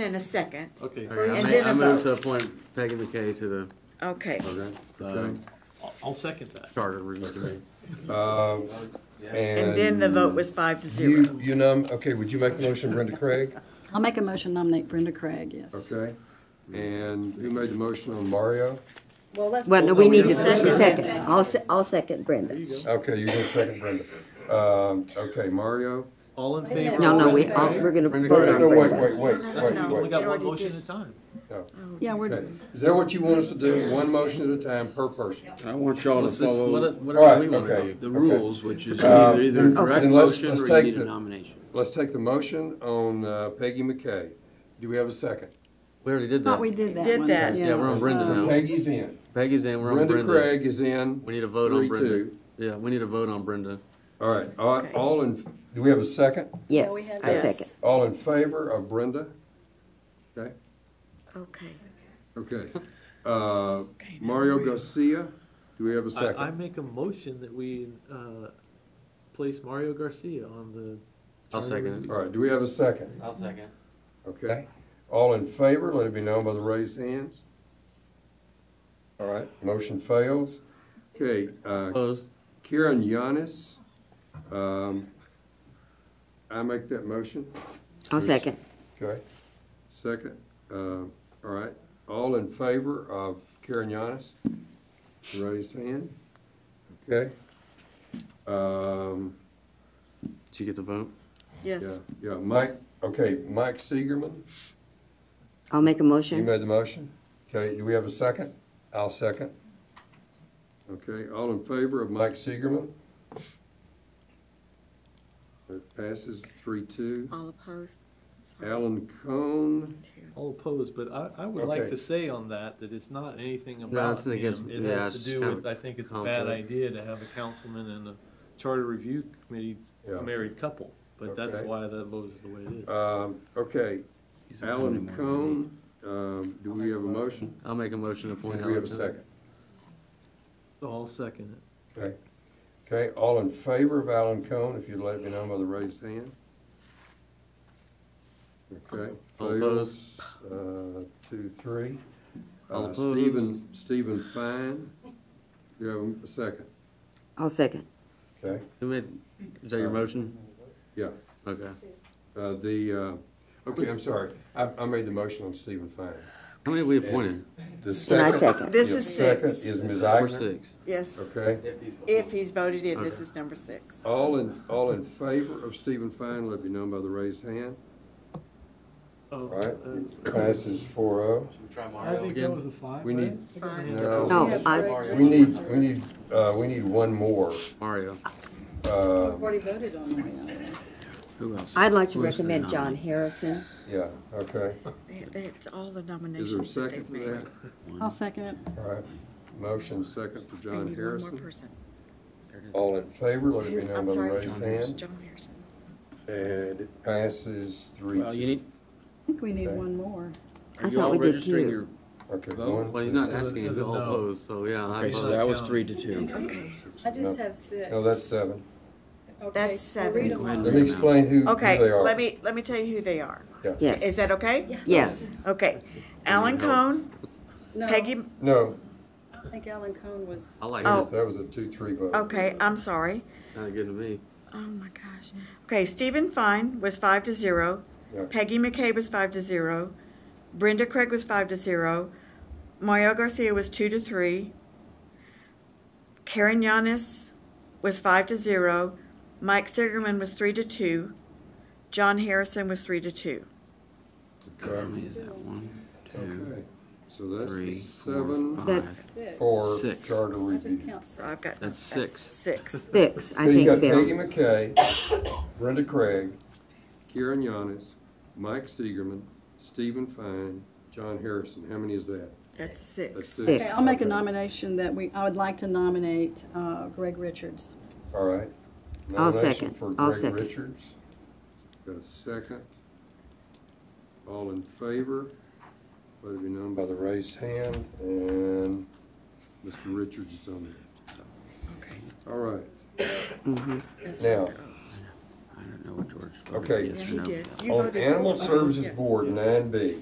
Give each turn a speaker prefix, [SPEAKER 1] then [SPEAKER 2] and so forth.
[SPEAKER 1] in a second.
[SPEAKER 2] Okay,
[SPEAKER 3] Okay, I
[SPEAKER 1] And
[SPEAKER 3] ma-
[SPEAKER 1] then
[SPEAKER 3] I
[SPEAKER 1] a
[SPEAKER 3] move to
[SPEAKER 1] vote.
[SPEAKER 3] appoint Peggy McKay to
[SPEAKER 1] Okay,
[SPEAKER 3] the, uh,
[SPEAKER 4] Okay.
[SPEAKER 2] I'll- I'll second that.
[SPEAKER 3] Charter Review Committee.
[SPEAKER 4] Um,
[SPEAKER 1] and then the vote was five to zero.
[SPEAKER 4] You, you nom, okay, would you make the motion, Brenda Craig?
[SPEAKER 5] I'll make a motion to nominate Brenda Craig, yes.
[SPEAKER 4] Okay, and who made the motion on Mario?
[SPEAKER 6] Well, let's.
[SPEAKER 7] Well, no, we need to
[SPEAKER 1] Second.
[SPEAKER 7] second. I'll, se- I'll second Brenda.
[SPEAKER 4] Okay, you can second Brenda. Um, okay, Mario?
[SPEAKER 2] All in
[SPEAKER 6] Wait a minute.
[SPEAKER 2] favor?
[SPEAKER 7] No, no, we,
[SPEAKER 6] Okay.
[SPEAKER 7] all- we're gonna
[SPEAKER 3] Brenda,
[SPEAKER 7] vote
[SPEAKER 3] go
[SPEAKER 7] on
[SPEAKER 4] No, wait,
[SPEAKER 7] Brenda.
[SPEAKER 4] wait, wait,
[SPEAKER 2] We
[SPEAKER 4] wait,
[SPEAKER 2] only
[SPEAKER 4] wait.
[SPEAKER 2] got one
[SPEAKER 1] already
[SPEAKER 2] motion
[SPEAKER 1] did.
[SPEAKER 2] at a time.
[SPEAKER 4] no.
[SPEAKER 5] Yeah, we're,
[SPEAKER 4] Okay, is that what you want us to do? One motion at a time per person?
[SPEAKER 8] I want y'all to
[SPEAKER 3] What's this-
[SPEAKER 8] follow Um,
[SPEAKER 3] what- Whatever we
[SPEAKER 4] Alright,
[SPEAKER 3] want to
[SPEAKER 4] okay.
[SPEAKER 3] do.
[SPEAKER 8] the rules, which is
[SPEAKER 4] Uh,
[SPEAKER 8] either either a direct
[SPEAKER 4] then let's-
[SPEAKER 8] motion
[SPEAKER 4] let's
[SPEAKER 8] or you
[SPEAKER 4] take
[SPEAKER 8] need
[SPEAKER 4] the-
[SPEAKER 8] a nomination.
[SPEAKER 4] Let's take the motion on uh, Peggy McKay. Do we have a second?
[SPEAKER 3] We already did
[SPEAKER 5] thought we
[SPEAKER 3] that.
[SPEAKER 5] did that
[SPEAKER 1] Did
[SPEAKER 5] one.
[SPEAKER 1] that.
[SPEAKER 3] Yeah, we're on Brenda now.
[SPEAKER 4] Peggy's in.
[SPEAKER 3] Peggy's in, we're on
[SPEAKER 4] Brenda
[SPEAKER 3] Brenda.
[SPEAKER 4] Craig is in.
[SPEAKER 3] We need a vote on
[SPEAKER 4] Three,
[SPEAKER 3] Brenda.
[SPEAKER 4] two.
[SPEAKER 3] Yeah, we need a vote on Brenda.
[SPEAKER 4] All right, all, all in, do we have a second?
[SPEAKER 7] Yes,
[SPEAKER 6] Yeah, we had
[SPEAKER 7] I
[SPEAKER 1] that.
[SPEAKER 7] second.
[SPEAKER 4] All in favor of Brenda? Okay,
[SPEAKER 1] Okay.
[SPEAKER 4] okay. Uh, Mario Garcia, do we have a
[SPEAKER 2] I, I
[SPEAKER 4] second?
[SPEAKER 2] make a motion that we, uh, place Mario Garcia on the.
[SPEAKER 3] I'll
[SPEAKER 2] charter
[SPEAKER 3] second it.
[SPEAKER 2] review.
[SPEAKER 4] All right, do we have a second?
[SPEAKER 8] I'll second.
[SPEAKER 4] Okay, all in favor, let it be known by the raised hands. All right, motion fails. Okay, uh,
[SPEAKER 3] Opposed?
[SPEAKER 4] Karen Yanis, um, I make that motion.
[SPEAKER 7] I'll second.
[SPEAKER 4] Okay, second, uh, all right, all in favor of Karen Yanis? Raise hand, okay? Um,
[SPEAKER 3] Did you get the vote?
[SPEAKER 4] yeah,
[SPEAKER 1] Yes,
[SPEAKER 4] yeah, Mike, okay, Mike Seigerman,
[SPEAKER 7] I'll make a
[SPEAKER 4] you
[SPEAKER 7] motion.
[SPEAKER 4] made the motion, okay, do we have a second? I'll second. Okay, all in favor of Mike Seigerman? It passes three two.
[SPEAKER 1] all opposed.
[SPEAKER 4] Alan Cone,
[SPEAKER 2] All opposed, but I, I would like
[SPEAKER 4] Okay.
[SPEAKER 2] to say on that, that it's not anything
[SPEAKER 3] it's
[SPEAKER 2] about
[SPEAKER 3] not against-
[SPEAKER 2] him. It
[SPEAKER 3] yeah,
[SPEAKER 2] has to
[SPEAKER 3] it's
[SPEAKER 2] do
[SPEAKER 3] kind
[SPEAKER 2] with,
[SPEAKER 3] of
[SPEAKER 2] I think it's a bad
[SPEAKER 3] conflict.
[SPEAKER 2] idea to have a councilman and a charter review committee
[SPEAKER 4] Yeah.
[SPEAKER 2] married couple. But that's
[SPEAKER 4] Okay.
[SPEAKER 2] why that vote is the way it is.
[SPEAKER 4] um, okay, Alan Cone, um, do we have a motion?
[SPEAKER 3] I'll make a motion to appoint
[SPEAKER 4] And
[SPEAKER 3] Alan.
[SPEAKER 4] we have a
[SPEAKER 3] Cone.
[SPEAKER 4] second.
[SPEAKER 2] So I'll second it.
[SPEAKER 4] Okay. Okay, all in favor of Alan Cone, if you'd let me know by the raised hand? Okay.
[SPEAKER 3] All opposed?
[SPEAKER 4] fails, uh, Two, three.
[SPEAKER 3] All
[SPEAKER 4] Uh,
[SPEAKER 3] opposed?
[SPEAKER 4] Stephen, Stephen Fine, you have a second,
[SPEAKER 7] I'll second.
[SPEAKER 4] okay?
[SPEAKER 3] Who made- Is that your motion?
[SPEAKER 4] Uh, Yeah,
[SPEAKER 3] Okay.
[SPEAKER 4] uh, the, uh, okay, I'm sorry, I, I made the motion on Stephen Fine.
[SPEAKER 3] How many have we appointed?
[SPEAKER 4] The
[SPEAKER 7] And I
[SPEAKER 4] second.
[SPEAKER 7] second.
[SPEAKER 1] This
[SPEAKER 4] the
[SPEAKER 1] is six.
[SPEAKER 4] Second is Ms.
[SPEAKER 3] Four,
[SPEAKER 4] Eichner,
[SPEAKER 3] six.
[SPEAKER 1] Yes,
[SPEAKER 4] okay?
[SPEAKER 1] if he's voted in, this is number six.
[SPEAKER 4] All in, all in favor of Stephen Fine, let me know by the raised hand,
[SPEAKER 2] Oh,
[SPEAKER 4] all right?
[SPEAKER 2] uh,
[SPEAKER 4] Passes four oh.
[SPEAKER 2] I think that
[SPEAKER 3] again.
[SPEAKER 2] was a five,
[SPEAKER 4] We
[SPEAKER 2] right?
[SPEAKER 4] need-
[SPEAKER 2] I thought we had
[SPEAKER 4] No.
[SPEAKER 2] to-
[SPEAKER 7] No, I,
[SPEAKER 4] We need, we need, uh, we need one more.
[SPEAKER 3] Mario.
[SPEAKER 4] Uh,
[SPEAKER 5] We've already voted on Mario.
[SPEAKER 8] Who else?
[SPEAKER 7] I'd like to
[SPEAKER 8] Who's the
[SPEAKER 7] recommend John
[SPEAKER 8] nominee?
[SPEAKER 7] Harrison.
[SPEAKER 4] yeah, okay,
[SPEAKER 1] They- they- It's all the
[SPEAKER 4] is there a
[SPEAKER 1] nominations that
[SPEAKER 4] second
[SPEAKER 1] they've
[SPEAKER 4] for
[SPEAKER 1] made.
[SPEAKER 4] that?
[SPEAKER 5] I'll second it.
[SPEAKER 4] All right, motion second for
[SPEAKER 1] They
[SPEAKER 4] John
[SPEAKER 1] need one more
[SPEAKER 4] Harrison.
[SPEAKER 1] person.
[SPEAKER 4] All in favor, let it be
[SPEAKER 1] Who-
[SPEAKER 4] known
[SPEAKER 1] I'm
[SPEAKER 4] by the
[SPEAKER 1] sorry,
[SPEAKER 4] raised
[SPEAKER 1] John
[SPEAKER 4] hand.
[SPEAKER 1] John Harrison.
[SPEAKER 4] And it passes three
[SPEAKER 8] Well, you
[SPEAKER 4] two.
[SPEAKER 8] need,
[SPEAKER 5] I think we need
[SPEAKER 4] Okay.
[SPEAKER 5] one more.
[SPEAKER 8] are
[SPEAKER 7] I
[SPEAKER 8] you
[SPEAKER 7] thought
[SPEAKER 8] all
[SPEAKER 7] we did
[SPEAKER 8] registering
[SPEAKER 7] two.
[SPEAKER 8] your?
[SPEAKER 4] Okay,
[SPEAKER 8] Well,
[SPEAKER 4] one,
[SPEAKER 3] Well, he's
[SPEAKER 4] two.
[SPEAKER 3] not asking, he's
[SPEAKER 2] Doesn't
[SPEAKER 3] all
[SPEAKER 2] know.
[SPEAKER 3] opposed, so yeah. I
[SPEAKER 8] Okay, so
[SPEAKER 3] vote.
[SPEAKER 8] that was
[SPEAKER 2] count.
[SPEAKER 8] three to two.
[SPEAKER 6] I just
[SPEAKER 4] No.
[SPEAKER 6] have six.
[SPEAKER 4] No, that's seven.
[SPEAKER 6] Okay,
[SPEAKER 1] That's
[SPEAKER 6] so read
[SPEAKER 1] seven.
[SPEAKER 6] them
[SPEAKER 8] Gwen
[SPEAKER 6] all.
[SPEAKER 4] Let me explain who, who
[SPEAKER 1] Okay,
[SPEAKER 4] they are.
[SPEAKER 1] let me, let me tell you who they are.
[SPEAKER 4] Yeah.
[SPEAKER 1] Is
[SPEAKER 7] Yes,
[SPEAKER 1] that okay?
[SPEAKER 7] yes.
[SPEAKER 1] Okay. Alan Cone,
[SPEAKER 5] No,
[SPEAKER 1] Peggy,
[SPEAKER 4] No,
[SPEAKER 5] I think Alan Cohn was,
[SPEAKER 3] I like
[SPEAKER 1] Oh.
[SPEAKER 3] it.
[SPEAKER 4] that was a two-three vote.
[SPEAKER 1] okay, I'm sorry.
[SPEAKER 3] Not good to me.
[SPEAKER 1] Oh my gosh. Okay, Stephen Fine was five to zero.
[SPEAKER 4] Yeah.
[SPEAKER 1] Peggy McKay was five to zero. Brenda Craig was five to zero. Mario Garcia was two to three. Karen Yanis was five to zero. Mike Sigerman was three to two. John Harrison was three to two.
[SPEAKER 4] Okay,
[SPEAKER 8] Is that one, two,
[SPEAKER 4] okay. so that's the
[SPEAKER 8] three,
[SPEAKER 4] seven
[SPEAKER 8] four, five?
[SPEAKER 7] That's
[SPEAKER 5] six.
[SPEAKER 4] for
[SPEAKER 8] Six.
[SPEAKER 4] charter
[SPEAKER 5] I
[SPEAKER 4] review.
[SPEAKER 5] just count
[SPEAKER 1] So
[SPEAKER 5] six.
[SPEAKER 1] I've got
[SPEAKER 8] That's six.
[SPEAKER 1] six.
[SPEAKER 7] six, I
[SPEAKER 4] So you got
[SPEAKER 7] think,
[SPEAKER 4] Peggy
[SPEAKER 7] Bill.
[SPEAKER 4] McKay, Brenda Craig, Karen Yanis, Mike Seigerman, Stephen Fine, John Harrison. How many is that?
[SPEAKER 1] That's
[SPEAKER 4] That's
[SPEAKER 1] six.
[SPEAKER 7] Six.
[SPEAKER 5] Okay, I'll make a
[SPEAKER 4] Okay.
[SPEAKER 5] nomination that we, I would like to nominate uh, Greg Richards.
[SPEAKER 4] All right.
[SPEAKER 7] I'll
[SPEAKER 4] Nomination
[SPEAKER 7] second.
[SPEAKER 4] for
[SPEAKER 7] I'll
[SPEAKER 4] Greg
[SPEAKER 7] second.
[SPEAKER 4] Richards. Got a second. All in favor, let it be known by the raised hand, and Mr. Richards is on there.
[SPEAKER 1] Okay.
[SPEAKER 4] All right.
[SPEAKER 1] That's
[SPEAKER 4] Now,
[SPEAKER 1] what- uh,
[SPEAKER 8] I know.
[SPEAKER 9] don't know what George. voted
[SPEAKER 4] Okay.
[SPEAKER 9] yes
[SPEAKER 8] Yeah,
[SPEAKER 9] or
[SPEAKER 8] he
[SPEAKER 9] no.
[SPEAKER 8] did. You
[SPEAKER 4] On
[SPEAKER 8] voted-
[SPEAKER 4] Animal Services
[SPEAKER 8] Yes.
[SPEAKER 4] Board, nine B.